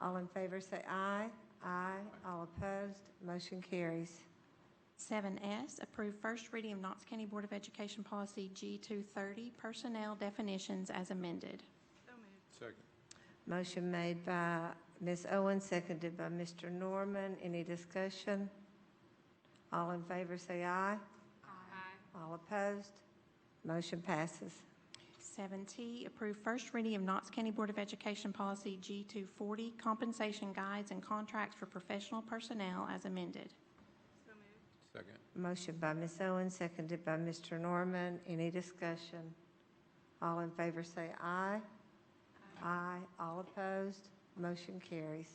All in favor, say aye. Aye. All opposed, motion carries. 7S, approve first reading of Knox County Board of Education Policy G230, Personnel Definitions as amended. Second. Motion made by Ms. Owen, seconded by Mr. Norman. Any discussion? All in favor, say aye. Aye. All opposed, motion passes. 7T, approve first reading of Knox County Board of Education Policy G240, Compensation Guides and Contracts for Professional Personnel as amended. Second. Motion by Ms. Owen, seconded by Mr. Norman. Any discussion? All in favor, say aye. Aye. All opposed, motion carries.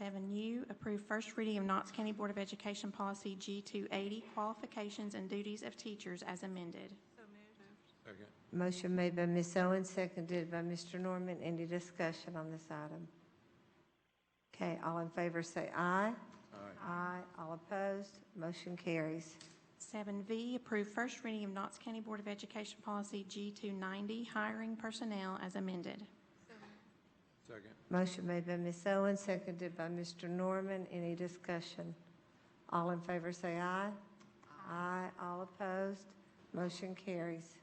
7U, approve first reading of Knox County Board of Education Policy G280, Qualifications and Duties of Teachers as amended. Second. Motion made by Ms. Owen, seconded by Mr. Norman. Any discussion on this item? Okay, all in favor say aye. Aye. Aye. All opposed, motion carries. 7V, approve first reading of Knox County Board of Education Policy G290, Hiring Personnel as amended. Second. Motion made by Ms. Owen, seconded by Mr. Norman. Any discussion? All in favor say aye. Aye. All opposed, motion carries.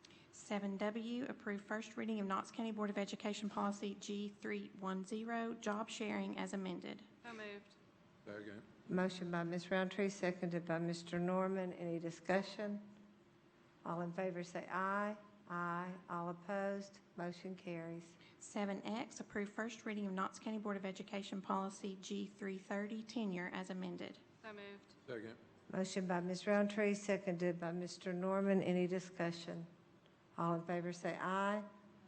7W, approve first reading of Knox County Board of Education Policy G310, Job Sharing as amended. So moved. Second. Motion by Ms. Roundtree, seconded by Mr. Norman. Any discussion? All in favor say aye. Aye. All opposed, motion carries. 7X, approve first reading of Knox County Board of Education Policy G330, Tenure as amended. So moved. Second. Motion by Ms. Roundtree, seconded by Mr. Norman. Any discussion? All in favor say aye.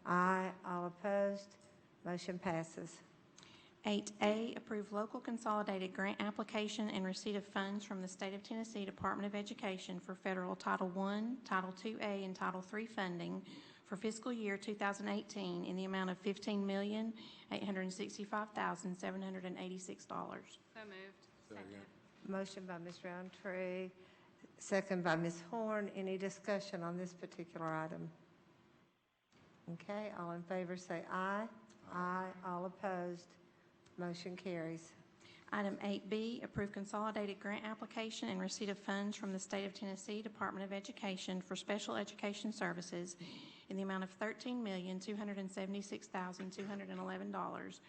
Aye. All opposed, motion passes. 8A, approve local consolidated grant application and receipt of funds from the State of Tennessee Department of Education for federal Title I, Title IIA, and Title III funding for fiscal year 2018 in the amount of $15,865,786. So moved. Second. Motion by Ms. Roundtree, second by Ms. Horn. Any discussion on this particular item? Okay, all in favor say aye. Aye. All opposed, motion carries. Item 8B, approve consolidated grant application and receipt of funds from the State of Tennessee Department of Education for special education services in the amount of $13,276,211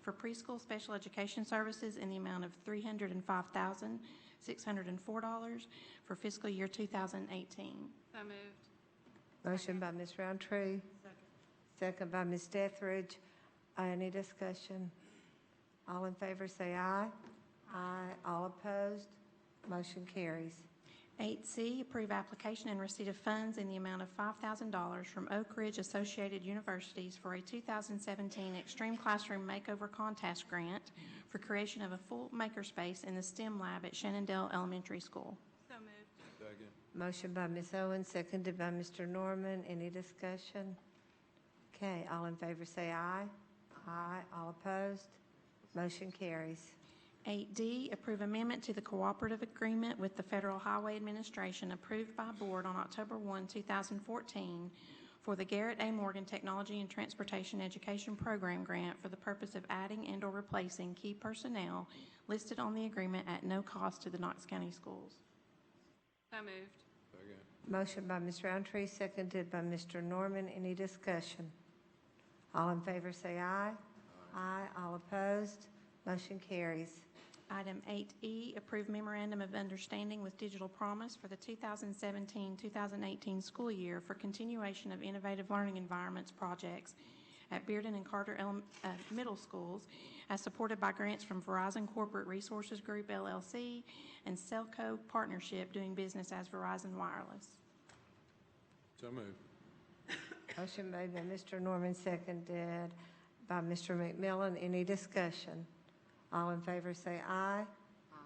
for preschool special education services in the amount of $305,604 for fiscal year 2018. So moved. Motion by Ms. Roundtree. Second by Ms. Dethridge. Uh, Any discussion? All in favor, say aye. Aye. All opposed, motion carries. 8C, approve application and receipt of funds in the amount of $5,000 from Oak Ridge Associated Universities for a 2017 Extreme Classroom Makeover Contest Grant for creation of a full makerspace in the STEM lab at Shenandoah Elementary School. So moved. Second. Motion by Ms. Owen, seconded by Mr. Norman. Any discussion? Okay, all in favor, say aye. Aye. All opposed, motion carries. 8D, approve amendment to the cooperative agreement with the Federal Highway Administration approved by board on October 1, 2014 for the Garrett A. Morgan Technology and Transportation Education Program Grant for the purpose of adding and/or replacing key personnel listed on the agreement at no cost to the Knox County Schools. So moved. Second. Motion by Ms. Roundtree, seconded by Mr. Norman. Any discussion? All in favor, say aye. Aye. All opposed, motion carries. Item 8E, approve memorandum of understanding with Digital Promise for the 2017-2018 school year for continuation of innovative learning environments projects at Bearden and Carter Elem- uh, Middle Schools, as supported by grants from Verizon Corporate Resources Group LLC and Cellco Partnership doing business as Verizon Wireless. So moved. Motion made by Mr. Norman, seconded by Mr. McMillan. Any discussion? All in favor, say aye.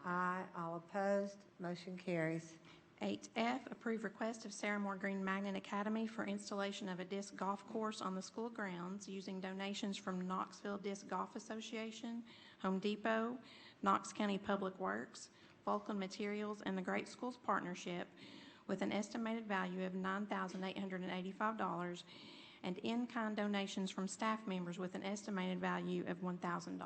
Aye. All opposed, motion carries. 8F, approve request of Sarah Moore Green Magnet Academy for installation of a disc golf course on the school grounds using donations from Knoxville Disc Golf Association, Home Depot, Knox County Public Works, Vulcan Materials, and the Great Schools Partnership with an estimated value of $9,885 and in-kind donations from staff members with an estimated value of $1,000.